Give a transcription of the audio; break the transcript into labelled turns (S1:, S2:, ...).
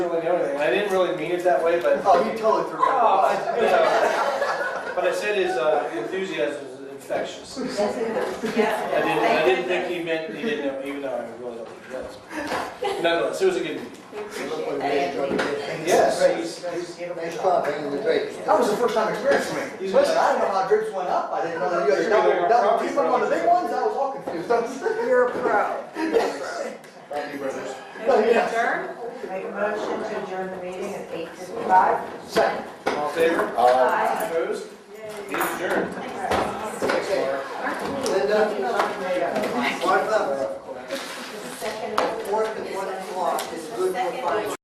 S1: really know anything. And I didn't really mean it that way, but
S2: Oh, you totally threw me
S1: Oh,
S2: off.
S1: I- you know, What I said is uh, enthusiasm is infectious. I
S3: Yes, it is.
S1: didn't,
S3: Yes,
S1: I didn't think he meant, he didn't know, even though I really don't think he does. Nonetheless, it was a good meeting.
S3: We
S4: It
S3: appreciate
S4: looked like we
S3: that.
S4: enjoyed it.
S1: Yes.
S2: Nice, nice
S4: Nice
S2: innovation.
S4: job, bringing the drapes.
S2: That was the first time experience for me.
S1: He's-
S2: Listen, I didn't know how drips went up. I didn't know that you guys
S1: You're gonna
S2: double, double
S1: property
S2: deep on the
S1: problems.
S2: big ones. I was all confused.
S3: You're a pro.
S4: Thank you, brothers.
S2: Oh, yeah.
S3: Adjourn?
S5: Make a motion to adjourn the meeting at eight fifty-five.
S2: Second.
S1: All in favor?
S4: Uh,
S3: Aye.
S1: Opposed? Meeting adjourned. Thanks, Laura.
S2: Linda, wipe up.
S5: Second.
S2: Fourth and one o'clock is good for
S3: Second.
S2: finance.